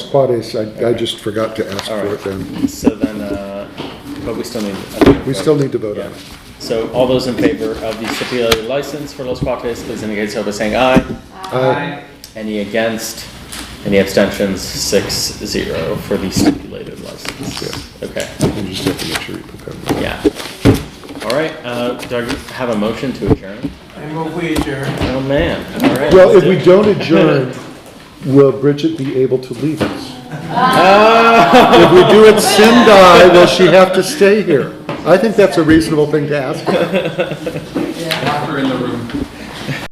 Claudius, I, I just forgot to ask All for right. it then. So then, uh, but we still need. I think- We still need to vote on it. Yeah. So all those in favor of the stipulated license for Los Cuates, please indicate so by saying aye. Aye. Any against? Any abstentions? Six zero for the stipulated license. Okay, You just have to make sure you put that. in. yeah. All right, uh, do I have a motion to adjourn? I move we adjourn. Oh, man, all right. Well, let's if do we it. don't adjourn, will Bridget be able to leave us? Ah. If we do it Sendai, will she have to stay here? I think that's a reasonable thing to ask. Lock her in the room.